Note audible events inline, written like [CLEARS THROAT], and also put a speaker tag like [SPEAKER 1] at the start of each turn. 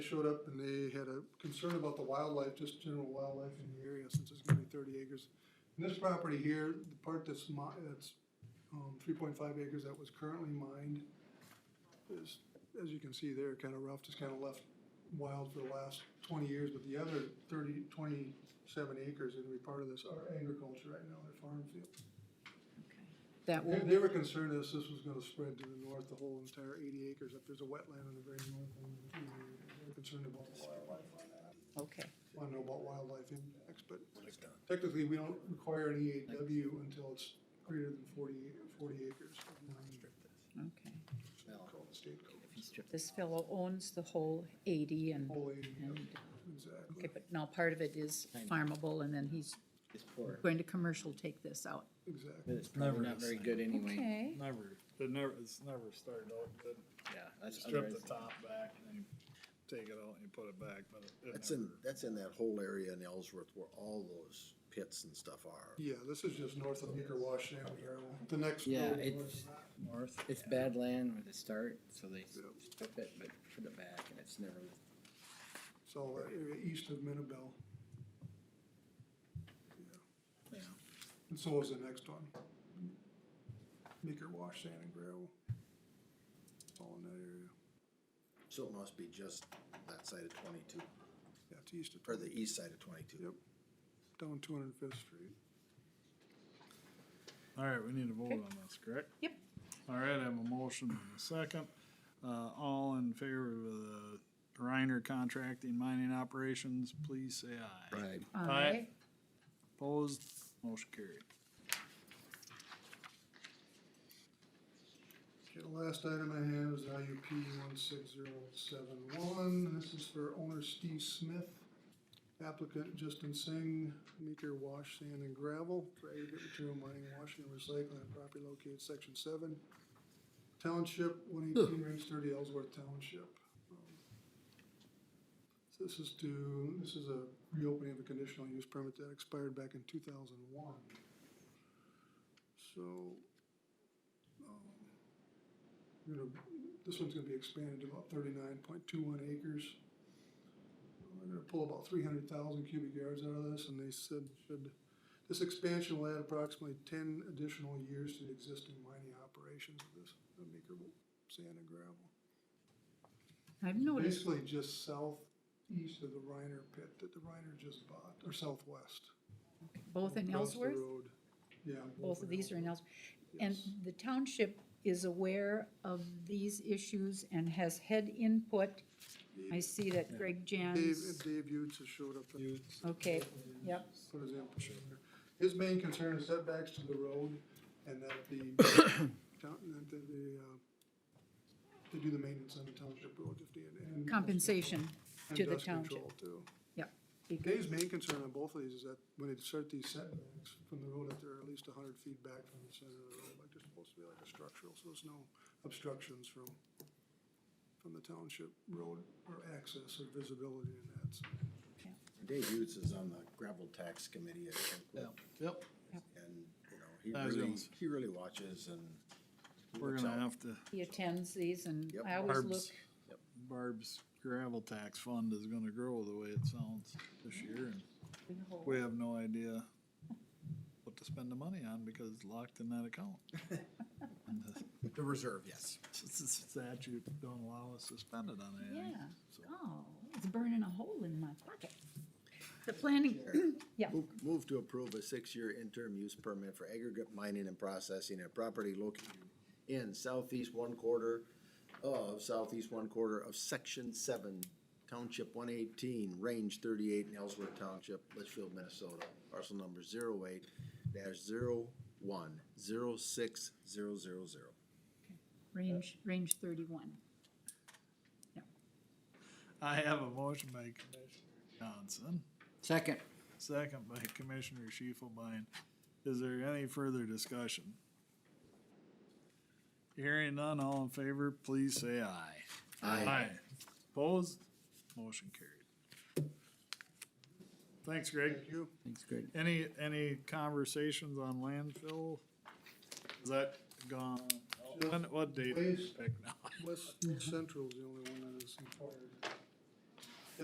[SPEAKER 1] showed up and they had a concern about the wildlife, just general wildlife in the area, since it's gonna be thirty acres. And this property here, the part that's mi- that's, um, three point five acres that was currently mined is, as you can see there, kinda rough, just kinda left wild for the last twenty years, but the other 30, 27 acres is gonna be part of this, are agriculture right now, they're farm field.
[SPEAKER 2] That
[SPEAKER 1] They,
[SPEAKER 2] will,
[SPEAKER 1] they were concerned this, this was gonna spread to the north, the whole entire eighty acres, if there's a wetland in the very north, and they were concerned about the wildlife on that.
[SPEAKER 2] okay,
[SPEAKER 1] Wanna know about wildlife impacts, but technically, we don't require an EAW until it's greater than 40 40 acres. of non-
[SPEAKER 2] okay.
[SPEAKER 1] called the state code.
[SPEAKER 2] This fellow owns the whole eighty and,
[SPEAKER 1] Whole area, yep,
[SPEAKER 2] and, okay,
[SPEAKER 1] exactly.
[SPEAKER 2] but now part of it is farmable and then he's
[SPEAKER 3] It's poor,
[SPEAKER 2] going to commercial take this out.
[SPEAKER 1] Exactly.
[SPEAKER 3] but it's probably
[SPEAKER 4] Never
[SPEAKER 3] not
[SPEAKER 4] the
[SPEAKER 3] very
[SPEAKER 4] same.
[SPEAKER 3] good anyway.
[SPEAKER 2] Okay,
[SPEAKER 4] Never, it never, it's never started out good.
[SPEAKER 3] Yeah,
[SPEAKER 4] You
[SPEAKER 3] that's
[SPEAKER 4] strip
[SPEAKER 3] otherwise.
[SPEAKER 4] the top back and then you take it out and you put it back, but it- it
[SPEAKER 5] That's in,
[SPEAKER 4] never-
[SPEAKER 5] that's in that whole area in Ellsworth where all those pits and stuff are.
[SPEAKER 1] Yeah, this is just north of Meeker Wash, Shannon Yarrow. the next.
[SPEAKER 3] Yeah,
[SPEAKER 1] road
[SPEAKER 3] it's-
[SPEAKER 1] was-
[SPEAKER 4] North.
[SPEAKER 3] It's bad land where they start, so they strip it, but put it back and it's never,
[SPEAKER 1] So, uh, area east of Minnabell.
[SPEAKER 3] yeah.
[SPEAKER 1] And so is the next one. Meeker Wash, Sand and Gravel. All in that area.
[SPEAKER 5] So it must be just that side of twenty-two,
[SPEAKER 1] Yeah, it's east of,
[SPEAKER 5] or the east side of twenty-two.
[SPEAKER 1] Yep. down two hundred and fifth street.
[SPEAKER 4] All right, we need to vote on this, correct?
[SPEAKER 2] Yep.
[SPEAKER 4] All right, I have a motion and a second. Uh, all in favor of the Reiner Contracting Mining Operations, please say aye.
[SPEAKER 5] Right.
[SPEAKER 2] aye,
[SPEAKER 4] Opposed, motion carried.
[SPEAKER 1] Okay, the last item I have is IUP one six zero seven one. This is for owner Steve Smith. Applicant Justin Singh, Meeker Wash Sand and Gravel, for aggregate material mining, washing and recycling, at property located section seven. Township, one eighteen range thirty Ellsworth Township. Um, So this is to, this is a reopening of a conditional use permit that expired back in two thousand one. So, um, you know, this one's gonna be expanded to about thirty-nine point two one acres. We're gonna pull about three hundred thousand cubic yards out of this, and they said, should, this expansion will add approximately ten additional years to the existing mining operations of this, of Meeker Sand and Gravel.
[SPEAKER 2] I've noticed,
[SPEAKER 1] Basically just southeast of the Reiner pit that the Reiner just bought, or southwest.
[SPEAKER 2] both in
[SPEAKER 1] across the
[SPEAKER 2] Ellsworth,
[SPEAKER 1] road. Yeah.
[SPEAKER 2] both of
[SPEAKER 1] in
[SPEAKER 2] these are in Ellsworth. And
[SPEAKER 1] Yes.
[SPEAKER 2] the township is aware of these issues and has had input. I see that Greg
[SPEAKER 1] Dave,
[SPEAKER 2] Jans,
[SPEAKER 1] Dave Utes has showed up.
[SPEAKER 2] okay, yep,
[SPEAKER 1] put his input in there. His main concern is setbacks to the road and that the, town- that the, the, uh, they do the maintenance on the township road if they. and-
[SPEAKER 2] compensation
[SPEAKER 1] and
[SPEAKER 2] to the
[SPEAKER 1] dust control,
[SPEAKER 2] township,
[SPEAKER 1] too.
[SPEAKER 2] yep. because-
[SPEAKER 1] Dave's main concern on both of these is that when they start these setbacks from the road, that they're at least hundred feet back from the center of the road, like they're supposed to be like a structural, so there's no obstructions from, from the township road or access or visibility in that, so.
[SPEAKER 5] Dave Utes is on the gravel tax committee at Kirkwood,
[SPEAKER 4] Yep.
[SPEAKER 5] and, you
[SPEAKER 4] That
[SPEAKER 5] know,
[SPEAKER 4] was
[SPEAKER 5] he really,
[SPEAKER 4] yours.
[SPEAKER 5] he really watches and. he
[SPEAKER 4] We're
[SPEAKER 5] looks
[SPEAKER 4] gonna
[SPEAKER 5] out.
[SPEAKER 4] have to,
[SPEAKER 2] He attends these and
[SPEAKER 5] Yep.
[SPEAKER 2] I always look,
[SPEAKER 4] Barb's, Barb's gravel tax fund is gonna grow the way it sounds this year and
[SPEAKER 2] we hope.
[SPEAKER 4] We have no idea what to spend the money on because it's locked in that account.
[SPEAKER 6] The reserve, yes.
[SPEAKER 4] The Statute don't allow us to spend it on anything.
[SPEAKER 2] Yeah.
[SPEAKER 4] so.
[SPEAKER 2] Oh, it's burning a hole in my pocket. The planning, [CLEARS THROAT] yeah,
[SPEAKER 5] Move- Move to approve a six-year interim use permit for aggregate mining and processing at property located in southeast one quarter of southeast one quarter of section seven, township one eighteen, range thirty-eight in Ellsworth Township, Litchfield, Minnesota. Parcel number zero eight dash zero one zero six zero zero zero.
[SPEAKER 2] range, range thirty-one.
[SPEAKER 4] I have a motion by Commissioner Johnson,
[SPEAKER 3] Second,
[SPEAKER 4] second by Commissioner Shifelbein. Is there any further discussion? Hearing none, all in favor, please say aye.
[SPEAKER 5] Aye.
[SPEAKER 4] Opposed? Motion carried. Thanks, Greg.
[SPEAKER 1] Thank you.
[SPEAKER 3] thanks, Greg.
[SPEAKER 4] Any, any conversations on landfill? Is that gone? When, what date? did you
[SPEAKER 1] Please.
[SPEAKER 4] pick now?
[SPEAKER 1] West Central's the only